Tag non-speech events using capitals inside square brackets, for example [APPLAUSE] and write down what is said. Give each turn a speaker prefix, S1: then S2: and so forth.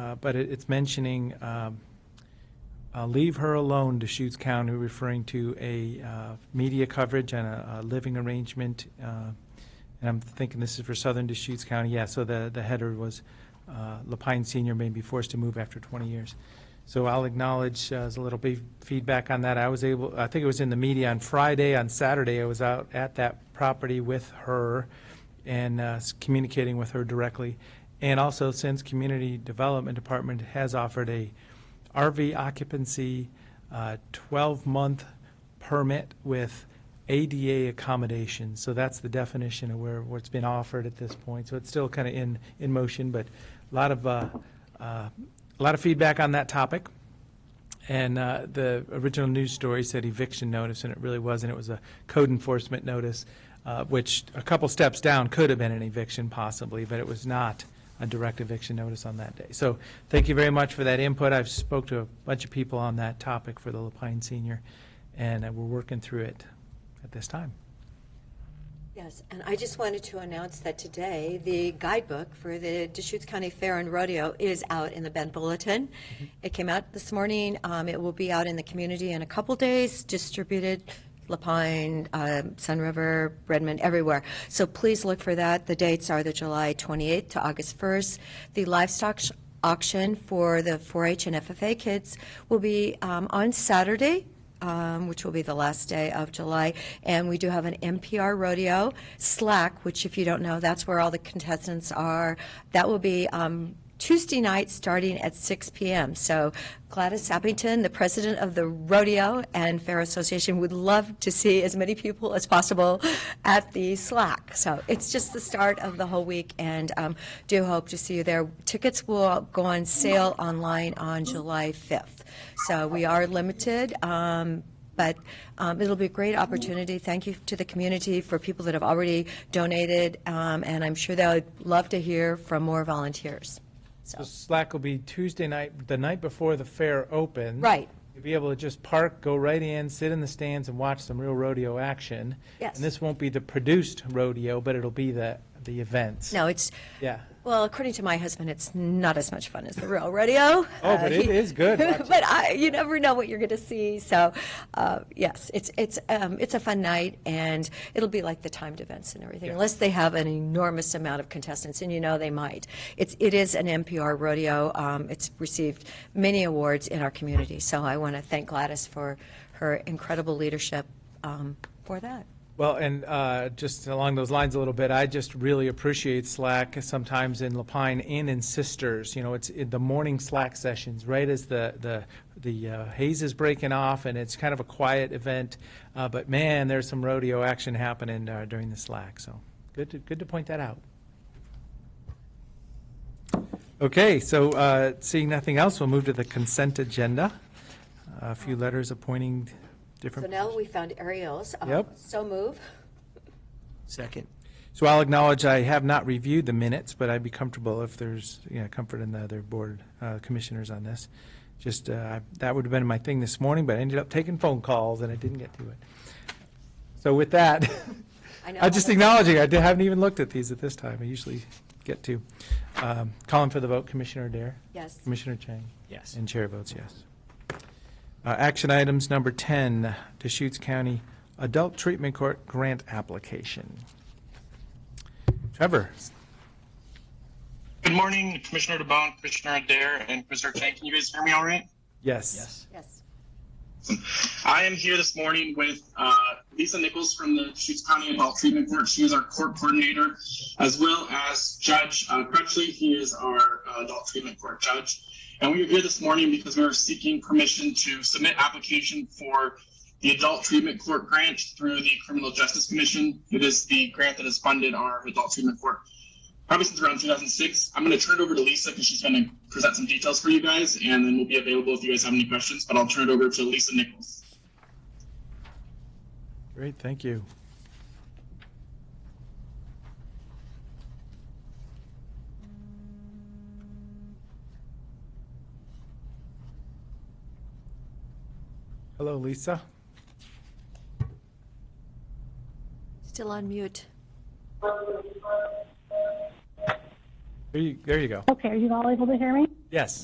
S1: uh, but it- it's mentioning, um, uh, leave her alone, Deschutes County, referring to a uh, media coverage and a a living arrangement. uh, And I'm thinking this is for Southern Deschutes County, yeah, so the, the header was, uh, Lapine Senior may be forced to move after 20 years. So I'll acknowledge, uh, as a little bit feedback on that, I was able, I think it was in the media on Friday, on Saturday, I was out at that property with her and uh, s- communicating with her directly. And also, since Community Development Department has offered a RV occupancy, uh, 12-month permit with ADA accommodation. So that's the definition of where, what's been offered at this point. So it's still kind of in, in motion, but a lot of, uh, uh, a lot of feedback on that topic. And uh, the original news story said eviction notice, and it really wasn't. It was a code enforcement notice, uh, which a couple steps down could have been an eviction possibly, but it was not a direct eviction notice on that day. So thank you very much for that input. I've spoke to a bunch of people on that topic for the Lapine Senior, and uh, we're working through it at this time.
S2: Yes, and I just wanted to announce that today, the guidebook for the Deschutes County Fair and Rodeo is out in the Bend Bulletin. It came out this morning. Um, It will be out in the community in a couple days, distributed Lapine, um, Sun River, Redmond, everywhere. So please look for that. The dates are the July 28th to August 1st. The livestock sh- auction for the 4-H and FFA kids will be um, on Saturday, um, which will be the last day of July. And we do have an NPR rodeo, Slack, which, if you don't know, that's where all the contestants are. That will be um, Tuesday night starting at 6 p.m. So Gladys Sappington, the president of the Rodeo and Fair Association, would love to see as many people as possible at the Slack. So it's just the start of the whole week, and um, do hope to see you there. Tickets will go on sale online on July 5th. So we are limited, um, but um, it'll be a great opportunity. Thank you to the community for people that have already donated, um, and I'm sure they'll love to hear from more volunteers.
S1: So Slack will be Tuesday night, the night before the fair opens.
S2: Right.
S1: You'll be able to just park, go right in, sit in the stands and watch some real rodeo action.
S2: Yes.
S1: And this won't be the produced rodeo, but it'll be the, the events.
S2: No, it's,
S1: Yeah.
S2: well, according to my husband, it's not as much fun as the real rodeo.
S1: Oh, but
S2: [LAUGHS] Uh,
S1: it
S2: he-
S1: is good.
S2: [LAUGHS]
S1: Watch it.
S2: But I, you never know what you're going to see, so, uh, yes, it's, it's, um, it's a fun night, and it'll be like the timed events and everything,
S1: Yeah.
S2: unless they have an enormous amount of contestants, and you know they might. It's, it is an NPR rodeo, um, it's received many awards in our community, so I want to thank Gladys for her incredible leadership um, for that.
S1: Well, and uh, just along those lines a little bit, I just really appreciate Slack sometimes in Lapine and in Sisters. You know, it's in the morning Slack sessions, right as the the the uh, haze is breaking off, and it's kind of a quiet event. Uh, but man, there's some rodeo action happening uh, during the Slack. So good to good to point that out. Okay, so uh, seeing nothing else, we'll move to the consent agenda. a few letters appointing different.
S2: So now we found Ariel's. um,
S1: Yep.
S2: So move.
S3: Second.
S1: So I'll acknowledge I have not reviewed the minutes, but I'd be comfortable if there's, you know, comfort in the other board uh, commissioners on this. Just, uh, that would have been my thing this morning, but I ended up taking phone calls and I didn't get to it. So with that,
S2: I know.
S1: I'm just acknowledging, I di- haven't even looked at these at this time. I usually get to. Um, Calling for the vote, Commissioner Dare?
S2: Yes.
S1: Commissioner Chang?
S3: Yes.
S1: And chair votes yes. Uh, Action items number 10, Deschutes County Adult Treatment Court Grant Application. Trevor?
S4: Good morning, Commissioner DeBonne, Commissioner Adair, and Commissioner Chang. Can you guys hear me all right?
S1: Yes.
S3: Yes.
S2: Yes.
S4: I am here this morning with uh, Lisa Nichols from the Deschutes County Adult Treatment Court. She is our court coordinator, as well as Judge uh, Crutchley. He is our uh, Adult Treatment Court judge. And we are here this morning because we are seeking permission to submit application for the Adult Treatment Court grant through the Criminal Justice Commission. It is the grant that has funded our Adult Treatment Court probably since around 2006. I'm going to turn it over to Lisa because she's going to present some details for you guys, and then we'll be available if you guys have any questions. But I'll turn it over to Lisa Nichols.
S1: Great, thank you. Hello, Lisa.
S2: Still on mute.
S1: There you, there you go.
S5: Okay, are you all able to hear me?
S1: Yes.